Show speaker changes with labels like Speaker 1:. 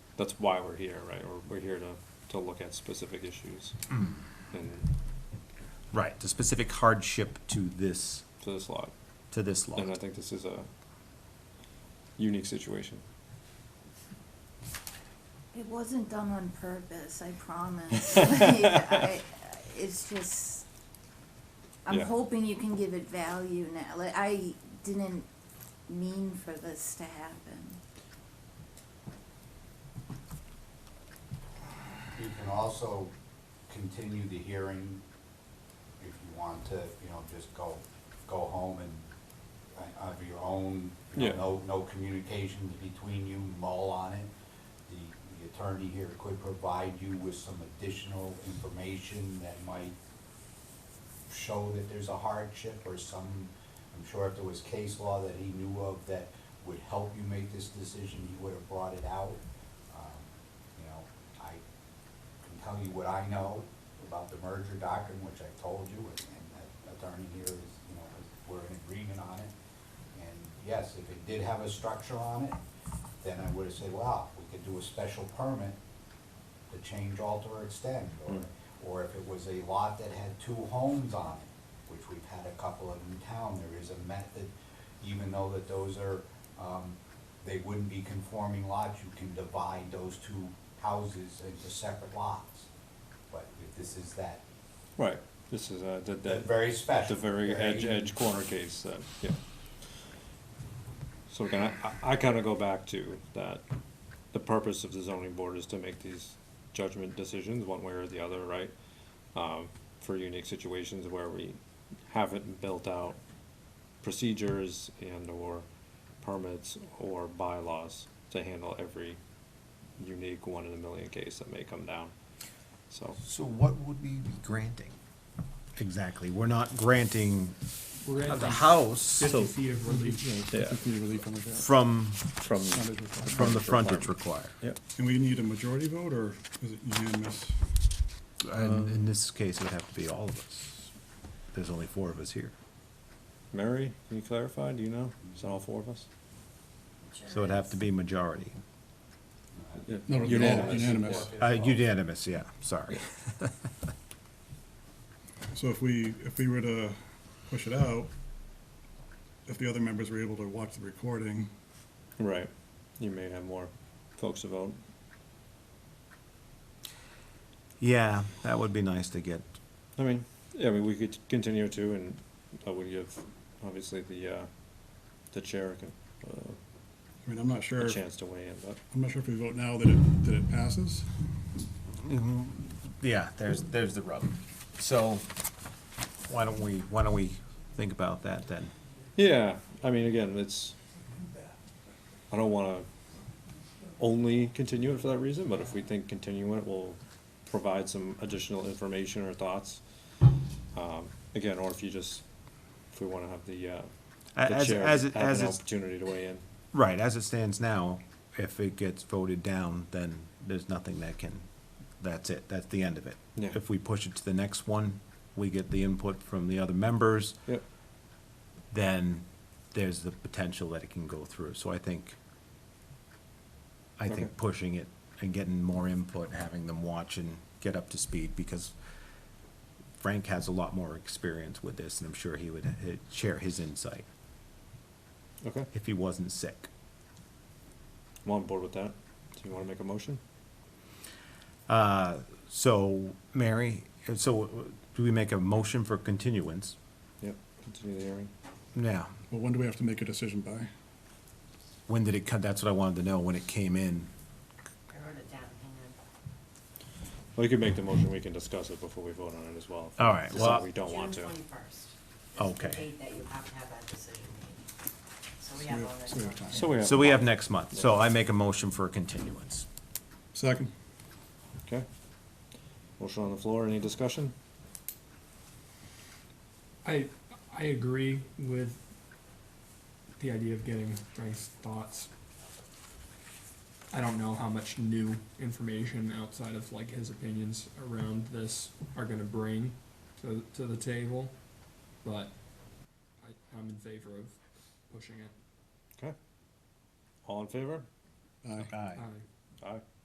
Speaker 1: that's why we're here, right? We're, we're here to, to look at specific issues and
Speaker 2: Right, the specific hardship to this,
Speaker 1: to this lot.
Speaker 2: to this lot.
Speaker 1: And I think this is a unique situation.
Speaker 3: It wasn't done on purpose, I promise. Like, I, it's just, I'm
Speaker 1: Yeah.
Speaker 3: hoping you can give it value now. Like, I didn't mean for this to happen.
Speaker 4: You can also continue the hearing if you want to, you know, just go, go home and uh, of your own, you
Speaker 1: Yeah.
Speaker 4: know, no, no communications between you, mull on it. The, the attorney here could provide you with some additional information that might show that there's a hardship or some, I'm sure if there was case law that he knew of that would help you make this decision, he would have brought it out. Um, You know, I can tell you what I know about the merger doctrine, which I told you, and and that attorney here is, you know, is- we're in agreement on it. And yes, if it did have a structure on it, then I would have said, wow, we could do a special permit to change, alter, or extend, or,
Speaker 1: Mm.
Speaker 4: or if it was a lot that had two homes on it, which we've had a couple of in town, there is a method, even though that those are, um, they wouldn't be conforming lots, you can divide those two houses into separate lots. But if this is that,
Speaker 1: Right. This is uh the,
Speaker 4: that
Speaker 1: the,
Speaker 4: very
Speaker 1: the
Speaker 4: special.
Speaker 1: very edge, edge corner case that, yeah. So again, I- I, I kinda go back to that, the purpose of the zoning board is to make these judgment decisions one way or the other, right? Um, for unique situations where we haven't built out procedures and or permits or bylaws to handle every unique one in a million case that may come down, so.
Speaker 5: So what would we be granting?
Speaker 2: Exactly, we're not granting
Speaker 6: We're
Speaker 2: the
Speaker 6: granting
Speaker 2: house
Speaker 6: fifty feet of relief.
Speaker 1: Yeah.
Speaker 6: feet of relief on the ground.
Speaker 2: from,
Speaker 1: From,
Speaker 2: from the frontage required.
Speaker 1: yep.
Speaker 6: And we need a majority vote, or is it unanimous?
Speaker 2: And in this case, it would have to be all of us. There's only four of us here.
Speaker 1: Mary, can you clarify? Do you know? Is it all four of us?
Speaker 2: So it'd have to be majority.
Speaker 6: No,
Speaker 1: Unanimous.
Speaker 6: Unanimous.
Speaker 2: Uh, unanimous, yeah, sorry.
Speaker 6: So if we, if we were to push it out, if the other members were able to watch the recording,
Speaker 1: Right. You may have more folks to vote.
Speaker 2: Yeah, that would be nice to get.
Speaker 1: I mean, yeah, I mean, we could continue to, and I would give, obviously, the, uh, the chair can, uh,
Speaker 6: I mean, I'm not sure,
Speaker 1: a
Speaker 6: if-
Speaker 1: chance to weigh in, but,
Speaker 6: I'm not sure if we vote now that it, that it passes.
Speaker 2: Mm-hmm. Yeah, there's, there's the rub. So why don't we, why don't we think about that then?
Speaker 1: yeah, I mean, again, it's, I don't wanna only continue it for that reason, but if we think continuing it will provide some additional information or thoughts, um, again, or if you just, if we wanna have the, uh,
Speaker 2: A-
Speaker 1: the
Speaker 2: As,
Speaker 1: chair
Speaker 2: as,
Speaker 1: have
Speaker 2: it- as
Speaker 1: an
Speaker 2: it's
Speaker 1: opportunity to weigh in.
Speaker 2: Right, as it stands now, if it gets voted down, then there's nothing that can, that's it, that's the end of it.
Speaker 1: Yeah.
Speaker 2: If we push it to the next one, we get the input from the other members,
Speaker 1: Yep.
Speaker 2: then there's the potential that it can go through. So I think, I
Speaker 1: Okay.
Speaker 2: think pushing it and getting more input, having them watch and get up to speed, because Frank has a lot more experience with this, and I'm sure he would uh, share his insight
Speaker 1: Okay,
Speaker 2: if he wasn't sick.
Speaker 1: I'm on board with that. Do you want to make a motion?
Speaker 2: Uh, So, Mary, so uh, do we make a motion for continuance?
Speaker 1: Yep, continue the hearing.
Speaker 2: Now,
Speaker 6: Well, when do we have to make a decision by?
Speaker 2: when did it come, that's what I wanted to know, when it came in.
Speaker 7: I wrote it down, hang on.
Speaker 1: Well, you can make the motion, we can discuss it before we vote on it as well. if we
Speaker 2: All right,
Speaker 1: decide
Speaker 2: well-
Speaker 1: We don't want to.
Speaker 7: June twenty-first.
Speaker 2: Okay.
Speaker 7: The date that you have to have that decision made. So we
Speaker 6: So
Speaker 7: have
Speaker 6: we
Speaker 7: all
Speaker 6: have-
Speaker 7: that.
Speaker 6: so we have
Speaker 7: time.
Speaker 6: time.
Speaker 1: So we have.
Speaker 2: So we have next month, so I make a motion for a continuance.
Speaker 6: Second?
Speaker 1: Okay. Motion on the floor, any discussion?
Speaker 8: I I agree with the idea of getting Frank's thoughts. I don't know how much new information outside of like his opinions around this are gonna bring to to the table, but I, I'm in favor of pushing it.
Speaker 1: All in favor?
Speaker 6: Aye.
Speaker 8: I-
Speaker 1: Aye.